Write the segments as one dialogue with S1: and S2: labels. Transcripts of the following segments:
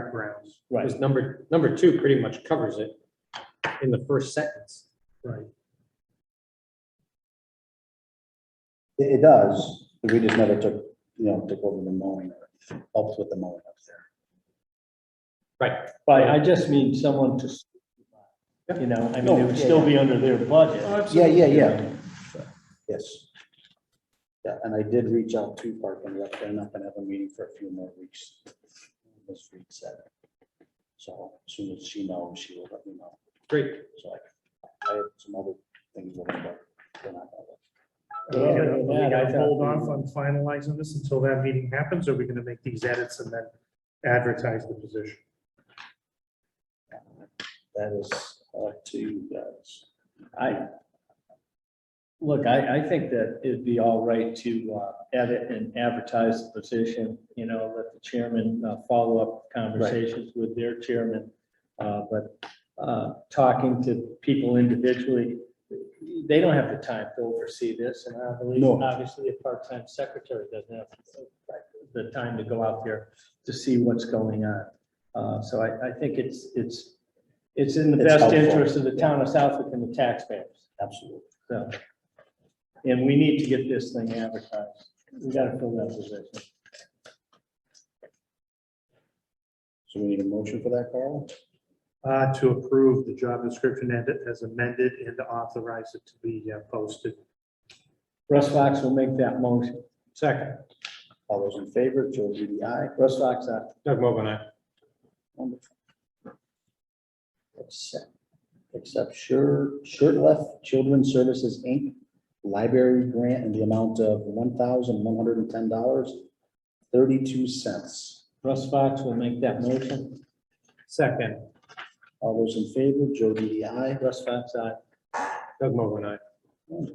S1: track grounds.
S2: Right.
S3: Because number, number two pretty much covers it in the first sentence.
S1: Right.
S2: It, it does, but we just never took, you know, took over the mowing or helped with the mowing up there.
S3: Right.
S4: But I just mean someone to, you know, I mean, it would still be under their
S1: Uh,
S4: budget.
S2: Yeah, yeah, yeah. Yes. Yeah, and I did reach out to Park and Rec, they're not gonna have a meeting for a few more weeks. Ms. Reed said. So as soon as she knows, she will let me know.
S3: Great.
S2: So I, I have some other things. looking at, but we're not gonna look.
S1: Are we gonna- are we
S4: Yeah, I
S1: gonna
S4: thought-
S1: Hold off on finalizing this until that meeting happens, or are we gonna make these edits and then advertise the position?
S2: That is up to you guys.
S4: I, look, I, I think that it'd be all right to uh, edit and advertise the position, you know, let the chairman uh, follow up conversations with their chairman. Uh, But uh, talking to people individually, they don't have the time to oversee this, and I believe,
S2: No.
S4: obviously, a part-time secretary doesn't have the time to go out there to see what's going on. Uh, So I, I think it's, it's, it's in the
S2: It's
S4: best
S2: helpful.
S4: interest of the town of Southwick and the taxpayers.
S2: Absolutely.
S4: So, and we need to get this thing advertised. We gotta fill that position.
S2: So we need a motion for that, Carl?
S1: Uh, to approve the job description and it as amended and to authorize it to be uh, posted.
S4: Russ Fox will make that motion.
S3: Second,
S2: All those in favor, Joe DDI.
S4: Russ Fox, aye.
S3: Doug Mogul, aye.
S2: Wonderful. Except, except sure, shirt left Children's Services, Inc., library grant in the amount of one thousand one hundred and ten dollars, thirty-two cents.
S4: Russ Fox will make that motion.
S3: Second,
S2: All those in favor, Joe DDI.
S4: Russ Fox, aye.
S3: Doug Mogul, aye.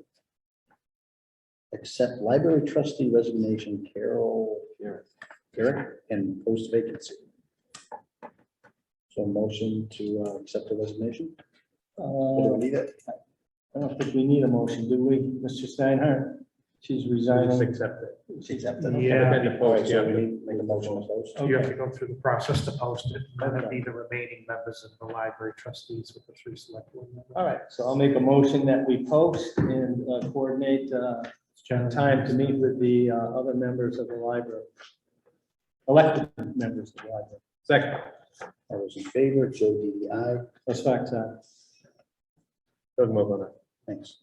S2: Accept library trustee resignation, Carol Garrett, and post vacancy. So motion to uh, accept the resignation? Or do we
S4: Uh,
S2: need it?
S4: I don't think we need a motion, do we, Mr. Steinhardt? She's
S3: Just
S4: resigning.
S3: accept it.
S2: Accept it.
S1: Yeah,
S3: Then the
S2: All right,
S3: post,
S2: so we
S3: yeah.
S2: need to make a motion to post.
S1: you have to go through the process to post it, and then it'd be the remaining members of the library trustees with the three select board members.
S4: All right, so I'll make a motion that we post and uh, coordinate uh, time to meet with the uh, other members of the library. Elected members of the library.
S3: Second,
S2: All those in favor, Joe DDI,
S4: Russ Fox, aye.
S3: Doug Mogul, aye.
S2: thanks.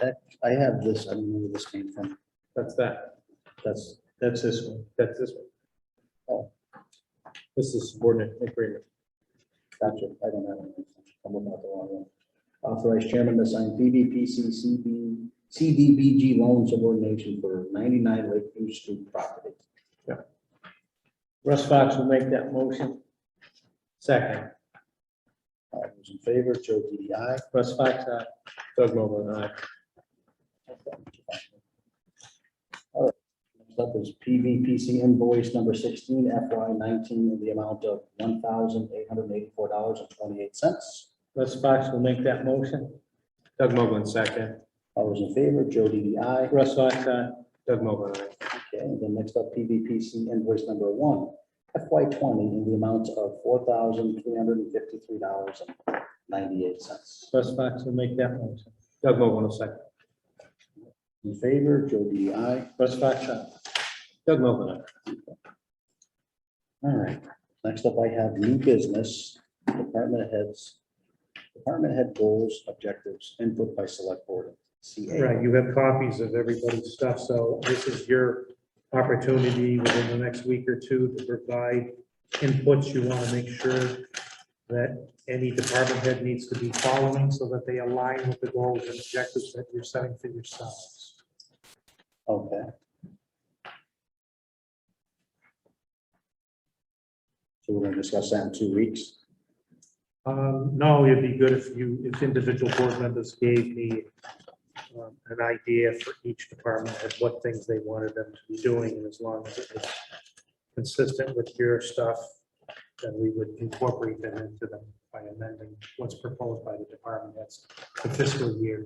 S2: That, I have this, I don't know where this came from,
S3: That's that.
S2: that's,
S4: That's this one.
S3: That's this one. Oh. This is subordinate agreement.
S2: gotcha, I don't have it. I'm looking at the wrong one. Authorized chairman to sign BBPC CB, CDBG loan subordination for ninety-nine Lakeview Street property.
S4: Russ Fox will make that motion.
S3: Second,
S2: All those in favor, Joe DDI.
S4: Russ Fox, aye.
S3: Doug Mogul, aye.
S2: Next up is PVPC invoice number sixteen FY nineteen in the amount of one thousand eight hundred eighty-four dollars and twenty-eight cents.
S4: Russ Fox will make that motion.
S3: Doug Mogul, second,
S2: All those in favor, Joe DDI.
S4: Russ Fox, uh, aye.
S3: Doug Mogul, aye.
S2: Okay, and then next up, PVPC invoice number one FY twenty in the amount of four thousand three hundred and fifty-three dollars and ninety-eight cents.
S4: Russ Fox will make that motion.
S3: Doug Mogul, second,
S2: In favor, Joe DDI.
S4: Russ Fox, uh, aye.
S3: Doug Mogul, aye.
S2: All right, next up, I have new business, department heads, department head goals, objectives, input by select board, CA.
S1: Right, you have copies of everybody's stuff, so this is your opportunity within the next week or two to provide inputs. You want to make sure that any department head needs to be following so that they align with the goals and objectives that you're setting for yourselves.
S2: Okay. So we're gonna discuss that in two weeks.
S1: Um, no, it'd be good if you, if individual board members gave me um, an idea for each department head, what things they wanted them to be doing, and as long as it was consistent with your stuff, then we would incorporate them into them by amending what's proposed by the department heads for fiscal year